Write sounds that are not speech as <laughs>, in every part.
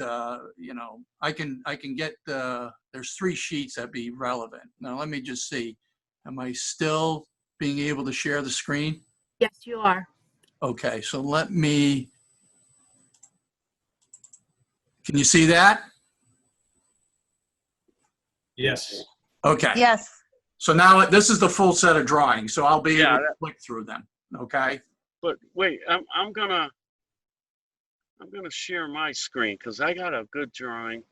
uh, you know, I can, I can get, uh, there's three sheets that be relevant. Now, let me just see. Am I still being able to share the screen? Yes, you are. Okay, so let me. Can you see that? Yes. Okay, Yes, so now this is the full set of drawings, so I'll be able Yeah, to click through them, okay? But wait, I'm, I'm gonna, I'm gonna share my screen because I got a good drawing.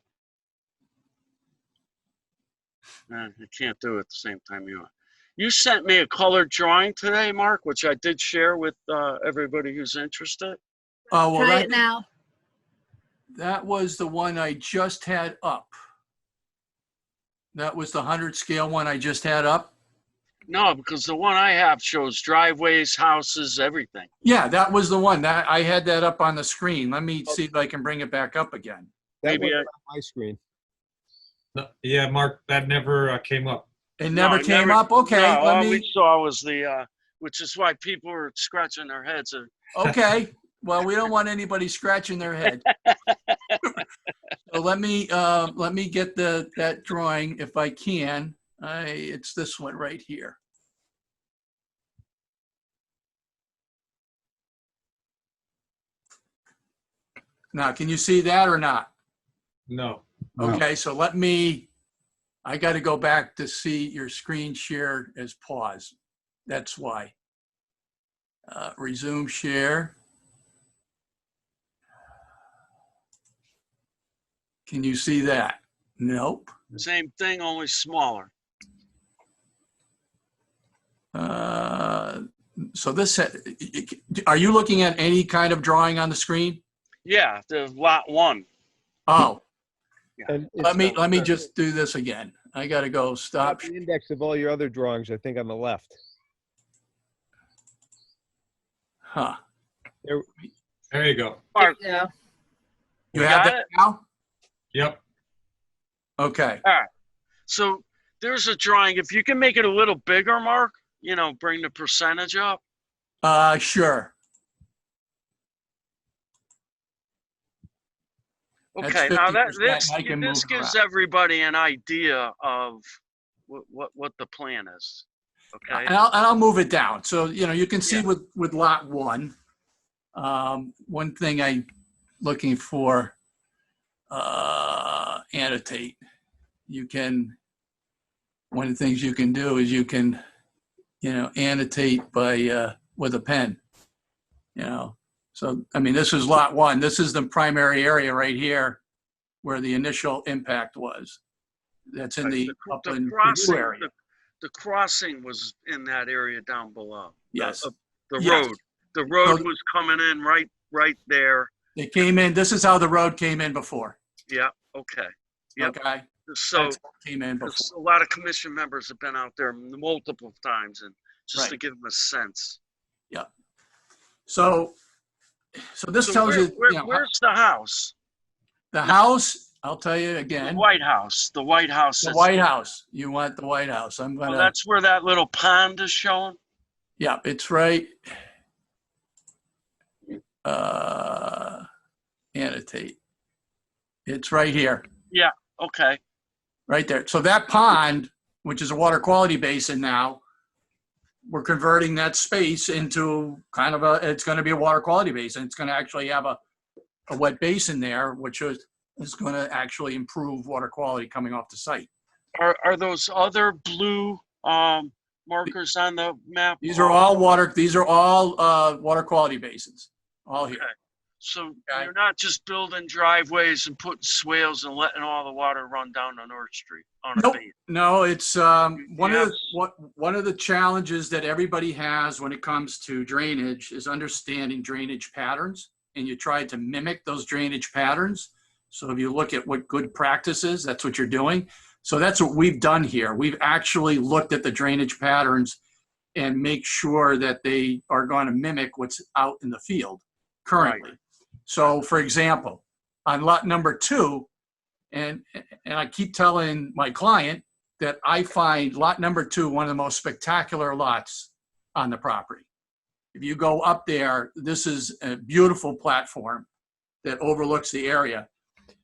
Nah, I can't do it at the same time you are. You sent me a colored drawing today, Mark, which I did share with uh, everybody who's interested. Oh, well, Try it that, now. that was the one I just had up. That was the 100 scale one I just had up? No, because the one I have shows driveways, houses, everything. Yeah, that was the one. That, I had that up on the screen. Let me see if I can bring it back up again. That Maybe was I- on my screen. No, yeah, Mark, that never uh, came up. It No, never it came never- up? Okay, No, all let we me, saw was the, uh, which is why people were scratching their heads. uh, <laughs> okay. Well, we don't want anybody scratching their <laughs> head. So let me, uh, let me get the, that drawing if I can. I, it's this one right here. Now, can you see that or not? No. Oh. Okay, so let me, I got to go back to see your screen share as pause. That's why. Uh, Resume share. Can you see that? Nope. Same thing, only smaller. Uh, So this, are you looking at any kind of drawing on the screen? Yeah, the lot one. Oh, And it's let me, got let me the- just do this again. I got to go stop. got the Index of all your other drawings, I think on the left. Huh. There you go. Mark, Yeah. You You have got that now? Yep. Okay. so there's a drawing. If you can make it a little bigger, Mark, you know, bring the percentage up. Uh, sure. That's Okay, now that 50%. this I can move this it gives everybody an idea of what what, what the plan is. Okay. And I'll, and I'll move it down. So, you know, you can see Yeah. with, with lot one, um, one thing I looking for, uh, annotate. You can, one of the things you can do is you can, you know, annotate by, uh, with a pen. You know, so, I mean, this is lot one. This is the primary area right here where the initial impact was. That's in the upland crossing, review area. The, uh, the crossing was in that area down below. The- Yes. uh, The Yes. road. The road So- was coming in right right there. They came in, this is how the road came in before. Yeah, okay. Yep. Okay? So That's how it Came in before. Because a lot of commission members have been out there multiple times and just to Right. give them a sense. So, so this So tells where- you, where- you know, Where's the house? the house, I'll tell you The again, White House, the White House. the is- White uh, House. You want the White House. I'm Oh, gonna, That's where that little pond is shown? yeah, it's right. Uh, annotate. It's right here, Okay, right there. So that pond, which is a water quality basin now, we're converting that space into kind of a, it's gonna be a water quality basin. It's gonna actually have a a wet basin there, which is, is going to actually improve water quality coming off the site. are, are those other blue, um, markers on the map? These are all water, these are all, uh, water quality basins, all here. So Okay. you're not just building driveways and putting swales and letting all the water run down to North Street on a Nope. beam? No, it's, um, one of, the- Yes. what, one of the challenges that everybody has when it comes to drainage is understanding drainage patterns. And you try to mimic those drainage patterns. So if you look at what good practice is, that's what you're doing. So that's what we've done here. We've actually looked at the drainage patterns and make sure that they are going to mimic what's out in the field currently. So for example, on lot number two, and, and I keep telling my client that I find lot number two, one of the most spectacular lots on the property. If you go up there, this is a beautiful platform that overlooks the area.